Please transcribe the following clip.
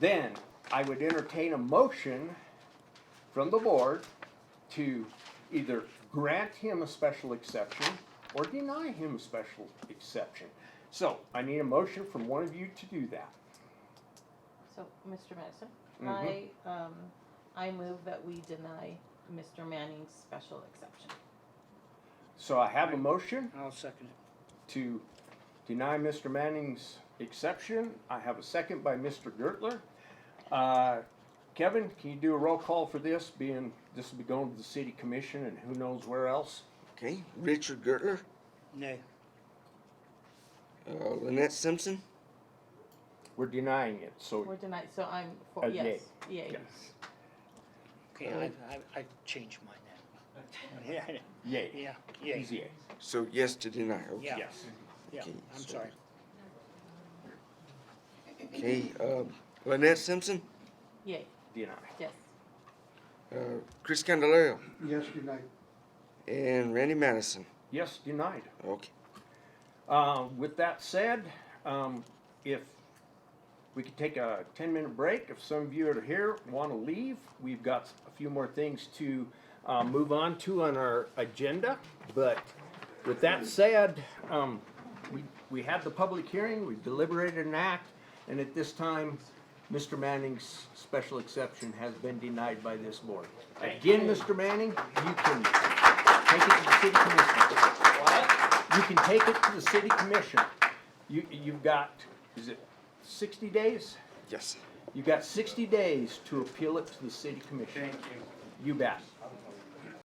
Then I would entertain a motion from the board to either grant him a special exception or deny him a special exception. So I need a motion from one of you to do that. So, Mr. Madison, I, Mhm. um, I move that we deny Mr. Manning's special exception. So I have a motion. I'll second it. to deny Mr. Manning's exception. I have a second by Mr. Gertler. Uh, Kevin, can you do a roll call for this, being, this will be going to the city commission and who knows where else? Okay, Richard Gertler, Nay. uh, Lynette Simpson, We're denying it, We're so, denied, so I'm, for, Uh, yes, yes, yay. Okay, I, I, I changed mine now. Yeah, yay, yeah, yeah, easy yay. so yes to deny, okay. yeah, yes. yeah, Okay, I'm so- sorry. Okay, uh, Lynette Simpson, Yay, Deny. yes, uh, Chris Candelario, Yes, unite. and Randy Madison, Yes, denied. okay. Uh, with that said, um, if we could take a ten-minute break, if some of you are here, wanna leave, we've got a few more things to, uh, move on to on our agenda, but with that said, um, we, we had the public hearing, we deliberated an act, and at this time, Mr. Manning's special exception has been denied by this board. Again, Mr. Manning, you can take it to the city commission. You can take it to the city commission. You, you've got, is it sixty days? Yes. You've got sixty days to appeal it to the city commission. Thank you. You bet.